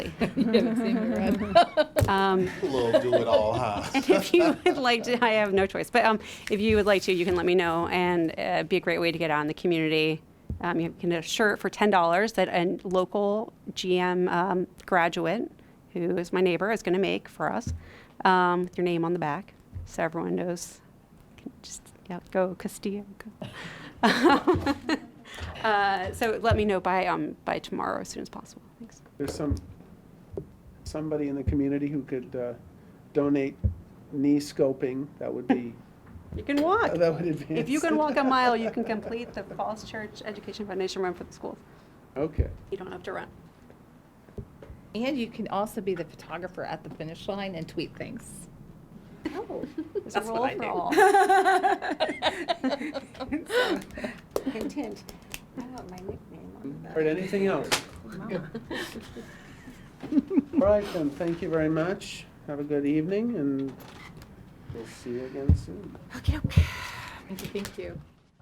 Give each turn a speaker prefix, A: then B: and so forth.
A: You haven't seen me run.
B: Um,
C: Little do it all, huh?
B: And if you would like to, I have no choice, but um, if you would like to, you can let me know, and uh, it'd be a great way to get out in the community. Um, you can get a shirt for ten dollars that a local GM um, graduate, who is my neighbor, is going to make for us, um, with your name on the back, so everyone knows. Can Just yeah, go Castillo. Go. uh, so let me know by um, by tomorrow as soon as possible. Thanks.
D: There's some, somebody in the community who could uh, donate knee scoping, that would be,
B: You can walk.
D: that would advance.
B: If you can walk a mile, you can complete the Falls Church Education Foundation run for the schools.
D: Okay.
B: You don't have to run.
A: And you can also be the photographer at the finish line and tweet things.
B: There's a
A: That's what
B: role
A: I
B: for
A: do.
B: all.
E: Hint, hint. I want my nickname on
D: All right, anything else? All right, then, thank you very much. Have a good evening, and we'll see you again soon.
A: Thank you.